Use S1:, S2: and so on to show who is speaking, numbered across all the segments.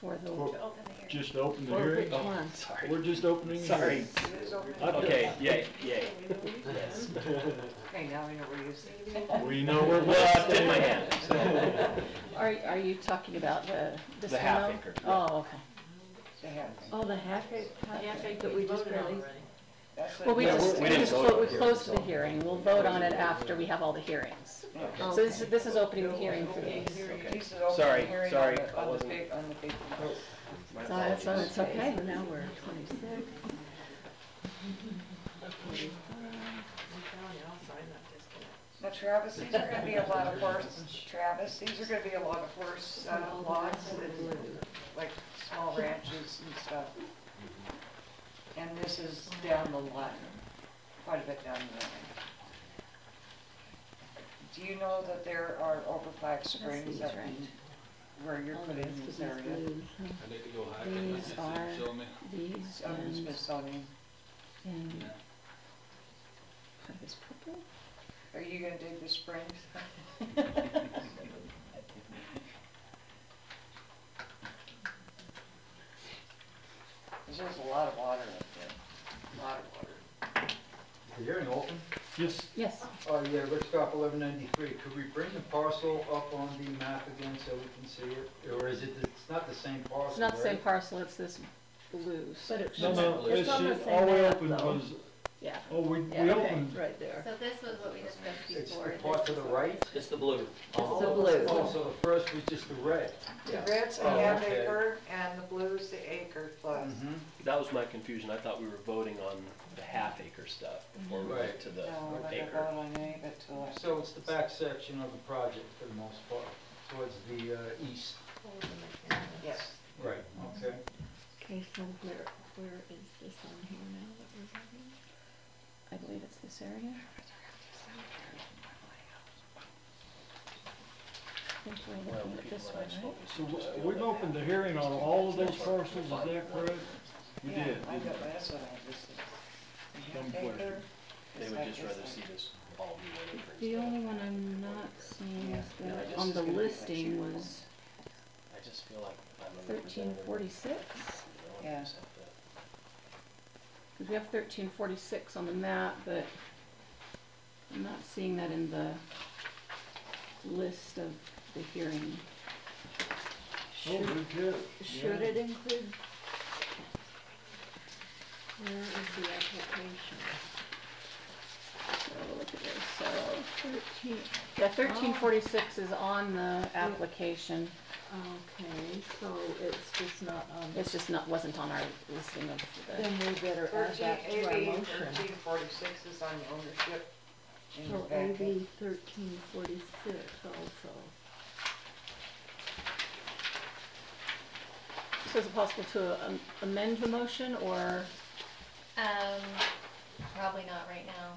S1: For the,
S2: For- Just open the
S1: for
S2: hearing.
S1: which
S3: Oh.
S1: one?
S2: We're just opening. the
S3: Sorry.
S2: hearing.
S3: Okay, yay, yay.
S1: Okay, now I know where you stand.
S2: We know where. we're
S3: Well, I tipped my
S2: standing.
S3: hand, so.
S1: Are, are you talking about the, this
S3: The half
S1: memo?
S3: acre, yeah.
S1: Oh, okay. Oh, the half acre, half acre that we just released? Well, we
S3: Yeah,
S1: just,
S3: we
S1: we
S3: didn't
S1: just,
S3: vote on
S1: clo- we
S3: it.
S1: closed the hearing, we'll vote on it after we have all the hearings. So this, is- this is opening the hearing for these.
S3: Sorry, sorry, I
S4: On the
S3: wasn't- Oh.
S4: big, on the big.
S3: My
S1: So it's, so
S3: apologies.
S1: it's okay, now we're at twenty-six.
S4: Now Travis, these are gonna be a lot of horse, Travis, these are gonna be a lot of horse uh, lots and like small ranches and stuff. And this is down the line, quite a bit down the line. Do you know that there are over five springs
S1: these,
S4: up
S1: right. Oh,
S4: in- where you're
S1: All
S4: putting
S1: those,
S4: this
S1: these
S4: area?
S1: blues, huh? These are these
S4: Up in
S1: and,
S4: Smithsonian,
S1: and. Are this purple?
S4: are you gonna dig the springs? There's just a lot of water up there, a lot of water.
S5: The hearing open.
S2: Yes,
S1: Yes,
S5: Uh, yeah, Rick Stop, eleven ninety-three. Could we bring the parcel up on the map again so we can see it? Or is it, it's not the same parcel,
S1: it's not the same
S5: right?
S1: parcel, it's this blue.
S6: But it's,
S2: no, no, it's,
S6: it's on the
S2: all
S6: same
S2: we
S6: map
S2: opened
S6: though.
S2: was,
S1: Yeah,
S2: oh, we, we
S1: yeah,
S2: opened,
S1: right there.
S6: So this was what we discussed
S5: It's
S6: before.
S5: the part to the right?
S3: It's the blue.
S5: Oh,
S1: the blue.
S5: Oh, so the first was just the red.
S4: The red's a
S5: Oh,
S4: half
S5: okay.
S4: acre and the blue's the acre plus.
S5: Mhm.
S3: That was my confusion, I thought we were voting on the half acre stuff before we went
S5: Right.
S3: to the
S1: Oh,
S4: No, I don't
S3: acre.
S4: vote on any of it till I-
S5: So it's the back section of the project for the most part, towards the, uh, east.
S4: yes.
S5: Right. Okay.
S1: Okay, so where, where is this on here now that we're having? I believe it's this area. I think we're
S3: Well,
S1: looking
S3: the
S1: at
S3: people
S1: this
S3: that
S1: one,
S3: I've
S1: right?
S3: spoken to
S2: so w-
S3: just feel
S2: we've
S3: that
S2: opened the hearing on all of those parcels, is that correct? We
S4: Yeah,
S2: did.
S4: I
S2: didn't
S4: got,
S2: we?
S4: that's what I just said. A
S2: Dumb
S4: half
S2: question.
S4: acre
S3: They
S4: is
S3: would
S4: like
S3: just
S4: this
S3: rather
S4: thing.
S3: see this all be one acre.
S1: The
S3: instead.
S1: only one I'm not seeing is
S3: Yeah, yeah, this
S1: the, on
S3: is
S1: the
S3: gonna be like
S1: listing
S3: shooting.
S1: was
S3: I just feel like I'm a
S1: thirteen
S3: representative.
S1: forty-six.
S3: you know,
S4: Yeah.
S3: something.
S1: Cause we have thirteen forty-six on the map, but I'm not seeing that in the list of the hearing.
S2: Oh,
S6: Should,
S2: good catch.
S6: should
S2: Yeah.
S6: it include? Where is the application?
S1: So we'll look at this, so Oh. thirteen, yeah, thirteen forty-six is on the application.
S6: Okay, so it's just not on,
S1: It's just not, wasn't on our listing of the,
S6: then we better add
S4: Thirteen
S6: that to our
S4: AB
S6: motion.
S4: thirteen forty-six is on the ownership. in the
S6: So
S4: back.
S6: AB thirteen forty-six also.
S1: so is it possible to um, amend the motion or,
S7: Um, probably not right now,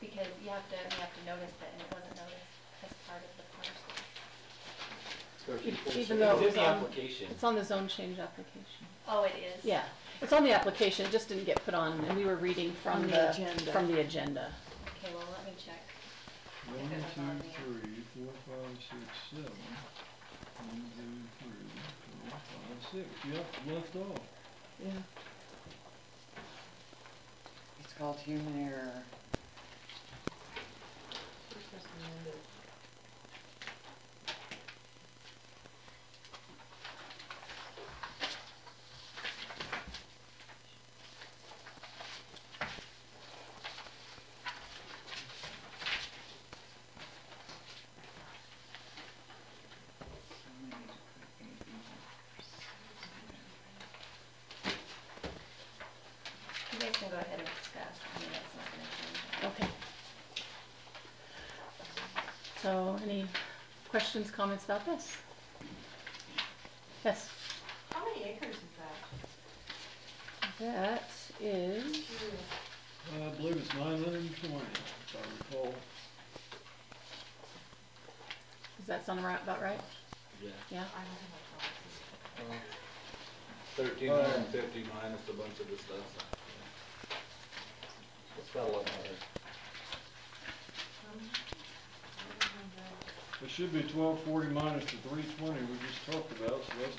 S7: because you have to, you have to notice that, and it wasn't noticed as part of the parcel.
S1: e-, even though
S8: It's in
S1: it's um,
S8: the
S1: on,
S8: application.
S1: it's on the zone change application?
S7: Oh, it is?
S1: Yeah, it's on the application, it just didn't get put on and we were reading
S6: On
S1: from
S6: the
S1: the,
S6: agenda.
S1: from the agenda.
S7: Okay, well, let me check.
S2: One, two, three, four, five, six, seven. One, two, three, four, five, six. Yep, left off.
S6: Yeah,
S4: It's called human error.
S7: You guys can go ahead and discuss, I mean, that's not gonna change.
S1: Okay. So any questions, comments about this? Yes?
S9: How many acres is that?
S1: That is,
S2: I believe it's nine hundred and twenty, if I recall.
S1: does that sound right, about right?
S8: Yeah.
S1: Yeah,
S9: I don't have a problem.
S8: Thirteen hundred and fifty minus a bunch of the stuff.
S3: It's about eleven hundred.
S2: It should be twelve forty minus the three twenty we just talked about, so that's